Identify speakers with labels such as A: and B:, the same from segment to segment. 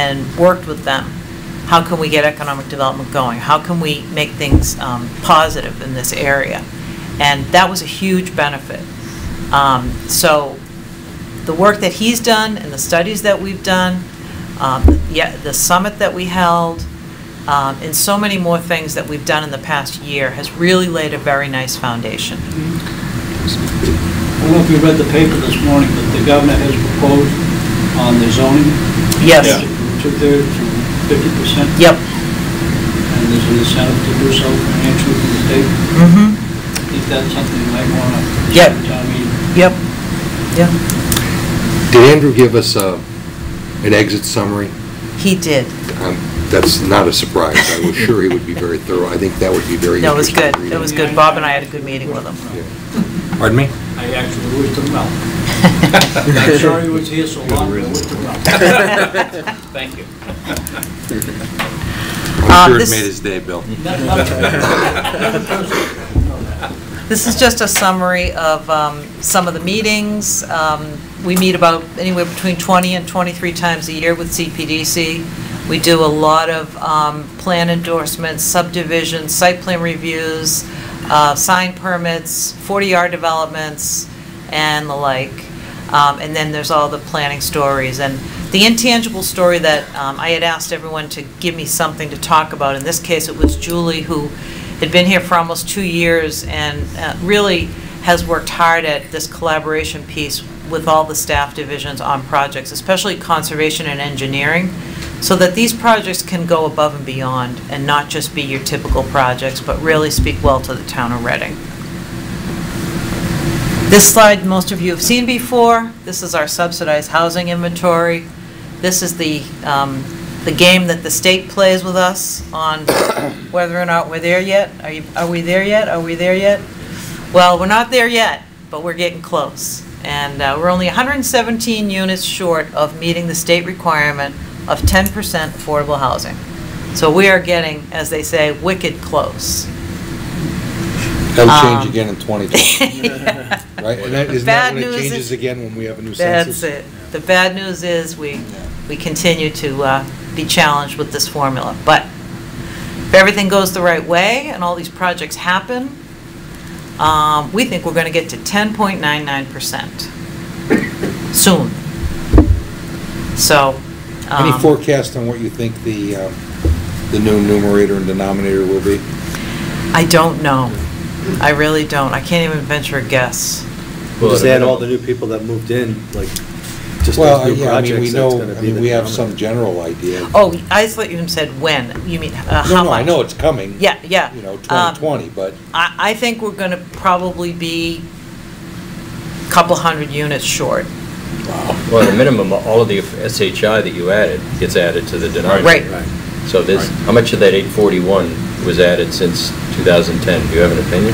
A: and worked with them, how can we get economic development going? How can we make things um, positive in this area? And that was a huge benefit. Um, So the work that he's done and the studies that we've done, um, yeah, the summit that we held, um, and so many more things that we've done in the past year has really laid a very nice foundation.
B: I don't know if you read the paper this morning, but the governor has proposed on the zoning.
A: Yes.
C: Yeah.
B: Two-thirds and fifty percent.
A: Yep.
B: And there's an incentive to do so financially from the state.
A: Mm-hmm.
B: I think that's something you might want to.
A: Yep.
B: Town meeting.
A: Yep. Yep.
D: Did Andrew give us uh, an exit summary?
A: He did.
D: Um, That's not a surprise. I was sure he would be very thorough. I think that would be very
A: No, it was
D: interesting
A: good.
D: reading.
A: It was good. Bob and I had a good meeting with him.
D: Yeah. Pardon me?
B: I actually wished him well. I'm sorry he was here so long, but I wished him well. Thank you.
A: Uh,
D: I'm sure it
A: Um, this-
D: made his day, Bill.
B: Not- not- No, no.
A: This is just a summary of um, some of the meetings. Um, We meet about anywhere between 20 and 23 times a year with CPDC. We do a lot of um, plan endorsements, subdivisions, site plan reviews, uh, sign permits, 40R developments, and the like. Um, And then there's all the planning stories. And the intangible story that um, I had asked everyone to give me something to talk about, in this case, it was Julie who had been here for almost two years and uh, really has worked hard at this collaboration piece with all the staff divisions on projects, especially conservation and engineering, so that these projects can go above and beyond and not just be your typical projects, but really speak well to the town of Reading. This slide, most of you have seen before. This is our subsidized housing inventory. This is the, um, the game that the state plays with us on whether or not we're there yet. Are you, are we there yet? Are we there yet? Well, we're not there yet, but we're getting close. And uh, we're only 117 units short of meeting the state requirement of 10% affordable housing. So we are getting, as they say, wicked close.
D: That'll change
A: Um,
D: again in 2020, right? And that- isn't
A: Bad
D: that when it
A: news is-
D: changes again when we have a new census?
A: That's it. The bad news is, we, we continue to uh, be challenged with this formula. But if everything goes the right way and all these projects happen, um, we think we're going to get to 10.99% soon. So. um,
D: Any forecast on what you think the, uh, the new numerator and denominator will be?
A: I don't know. I really don't. I can't even venture a guess.
E: Just add all the new people that moved in, like, just
D: Well,
E: those new
D: yeah, I mean, we
E: projects, that's
D: know,
E: gonna
D: I
E: be
D: mean,
E: the
D: we have some
E: dominant.
D: general idea.
A: Oh, I thought you said when. You mean uh, how
D: No,
A: much?
D: no, I know it's coming.
A: Yeah, yeah.
D: You know,
A: Um,
D: 2020, but
A: I, I think we're going to probably be a couple hundred units short.
F: Well, at a minimum, all of the SHI that you added gets added to the denominator.
A: Right.
F: So this, how much of that 841 was added since 2010? Do you have an opinion?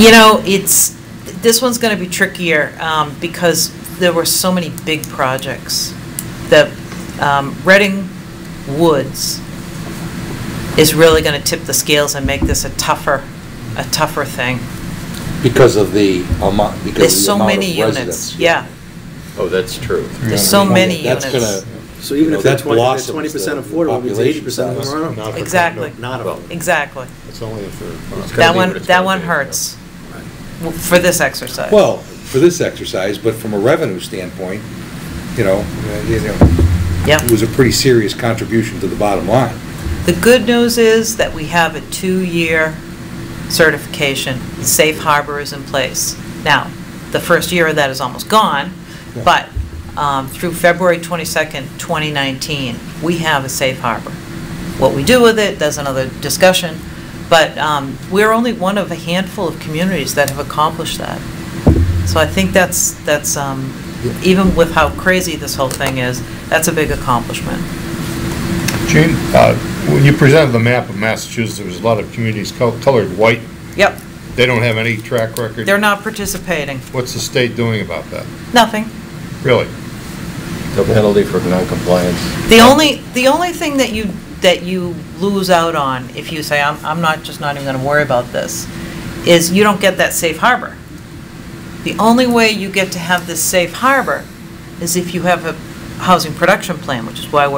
A: You know, it's, this one's going to be trickier um, because there were so many big projects. The um, Reading Woods is really going to tip the scales and make this a tougher, a tougher thing.
D: because of the amount,
A: There's
D: because
A: so
D: of the amount
A: many
D: of
A: units.
D: residents.
A: Yeah,
F: Oh, that's true.
A: there's so many
D: That's
A: units.
D: gonna-
E: So
D: you
E: even
D: know,
E: if they're
D: that
E: twenty, if
D: blossoms
E: they're twenty percent
D: the- the
E: affordable, it means eighty
D: population
E: percent of
D: size.
E: them are
D: Not
E: not.
D: for-
A: Exactly.
E: Not of them.
A: Exactly.
D: It's only a third.
F: gotta
A: That
F: be
A: one,
F: what it's
A: that
F: gotta
A: one
F: be.
A: hurts w- for this exercise.
D: Well, for this exercise, but from a revenue standpoint, you know, uh, you know,
A: Yep.
D: it was a pretty serious contribution to the bottom line.
A: The good news is that we have a two-year certification. Safe harbor is in place. Now, the first year of that is almost gone,
D: Yeah.
A: but um, through February 22nd, 2019, we have a safe harbor. What we do with it, that's another discussion, but um, we're only one of a handful of communities that have accomplished that. So I think that's, that's, um, even with how crazy this whole thing is, that's a big accomplishment.
G: Gene, uh, when you presented the map of Massachusetts, there was a lot of communities col- colored white.
A: Yep,
G: They don't have any track record.
A: they're not participating.
G: What's the state doing about that?
A: Nothing.
G: Really?
F: No penalty for noncompliance.
A: The only, the only thing that you, that you lose out on, if you say, I'm, I'm not, just not even gonna worry about this, is you don't get that safe harbor. The only way you get to have this safe harbor is if you have a housing production plan, which is why we're